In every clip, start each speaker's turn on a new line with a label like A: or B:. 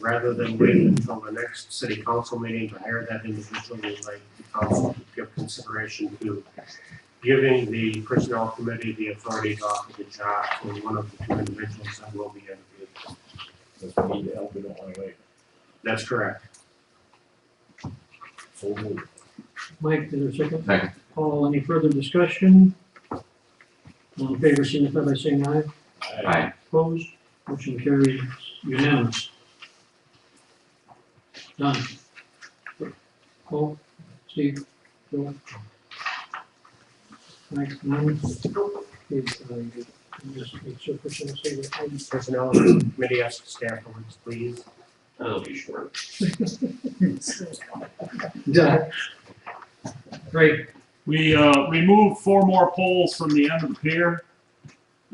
A: rather than wait until the next city council meeting to hire that individual, we'd like the council to give consideration to giving the personnel committee the authority to offer the job to one of the two individuals that will be interviewed.
B: If we need help, we don't want to wait.
A: That's correct.
B: So moved.
C: Mike, is there a second?
D: Second.
C: Paul, any further discussion? All in favor, signify by saying aye.
B: Aye.
D: Aye.
C: Opposed? Motion carries unanimous. Done. Paul, Steve, Joe? Mike, none? Okay, uh, you- you just make sure for sure to say that I'm-
A: Personnel committee asks staff to please.
E: That'll be short.
C: Done. Great,
F: We uh, removed four more poles from the end of the pier.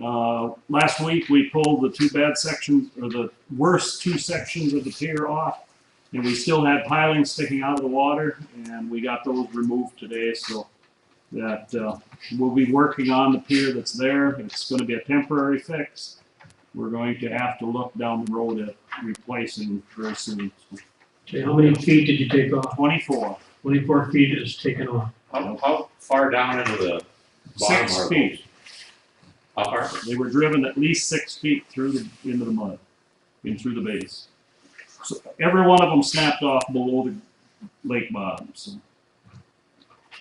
F: Uh, Last week, we pulled the two bad sections, or the worst two sections of the pier off, and we still had pilings sticking out of the water, and we got those removed today, so that uh, we'll be working on the pier that's there. It's going to be a temporary fix. We're going to have to look down the road at replacing very soon.
C: okay, how many feet did you take off?
F: Twenty-four,
C: Twenty-four feet is taken off.
E: How, how far down into the bottom
F: six
E: are
F: feet.
E: those? How far?
F: They were driven at least six feet through the, into the mud, and through the base. So every one of them snapped off below the lake bottom, so.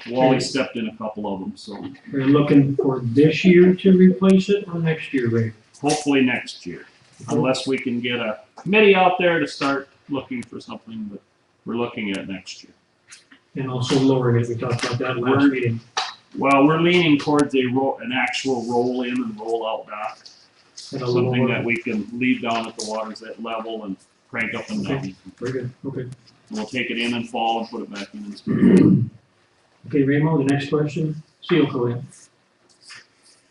F: Wally stepped in a couple of them, so
C: We're looking for this year to replace it or next year, Ray?
F: hopefully next year. Unless we can get a committee out there to start looking for something, but we're looking at next year.
C: And also lowering it, we talked about that last
F: Word.
C: meeting.
F: Well, we're leaning towards a roll, an actual roll in and roll out dock,
C: At a
F: something
C: lower-
F: that we can leave down at the waters at level and crank up and down.
C: Very good, okay.
F: We'll take it in and fall and put it back in.
C: Okay, Remo, the next question, seal coating. It's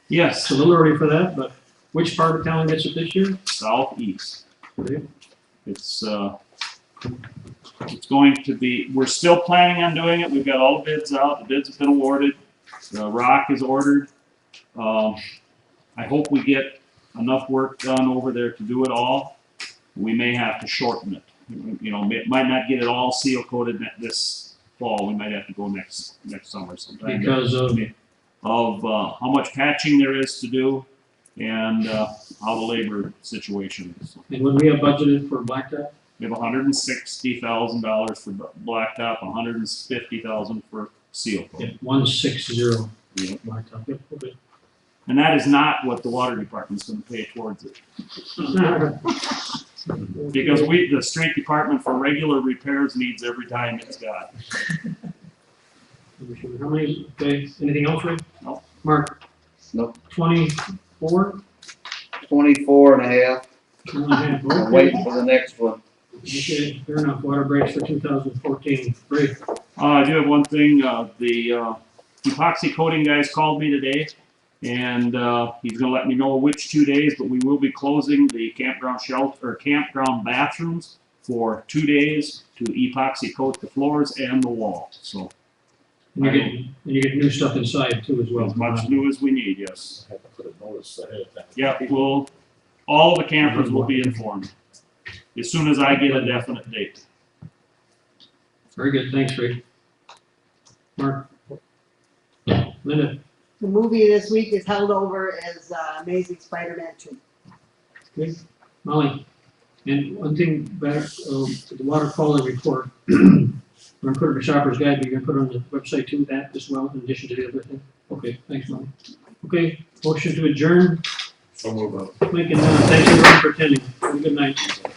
F: Yes,
C: a little early for that, but which part of town gets it this year?
F: southeast.
C: Okay.
F: It's, uh, it's going to be, we're still planning on doing it. We've got all the bids out. The bids have been awarded. The rock is ordered. Um, I hope we get enough work done over there to do it all. We may have to shorten it. You know, it might not get it all seal coated ne- this fall. We might have to go next, next summer sometime.
C: Because of,
F: of uh, how much patching there is to do and uh, how the labor situation is.
C: and when we have budgeted for blacktop,
F: We have hundred and sixty thousand dollars for bu- blacktop, $150,000 for seal coat.
C: yeah, one six zero.
F: Yeah.
C: Blacktop, yep, okay.
F: And that is not what the water department's gonna pay towards it. Because we, the street department for regular repairs needs every dime it's got.
C: How many, okay, anything else, Ray?
F: No.
C: Mark?
G: No.
C: Twenty-four?
G: 24 and a half. I'm
C: Okay,
G: waiting for the next one.
C: Okay, fair enough, water breaks for two thousand fourteen, great.
F: Uh, I do have one thing, uh, the, uh, epoxy coating guys called me today, and, uh, he's gonna let me know which two days, but we will be closing the campground shelter, or campground bathrooms for two days to epoxy coat the floors and the wall, so,
C: And you get, and you get new stuff inside too as well. uh,
F: as much new as we need, yes.
B: I have to put a notice ahead of time.
F: Yeah, we'll, all the campers will be informed, as soon as I get a definite date.
C: Very good, thanks, Rick. Mark? Linda,
H: The movie this week is held over as uh, Amazing Spider-Man 2.
C: Molly, and one thing back, uh, to the water quality report. We're gonna put it in the shopper's guide, but you're gonna put it on the website too, that as well, in addition to the other thing. Okay, thanks, Molly. Okay, motion to adjourn, uh,
B: So moved.
C: Mike and Donna, thanks everyone for attending, have a good night.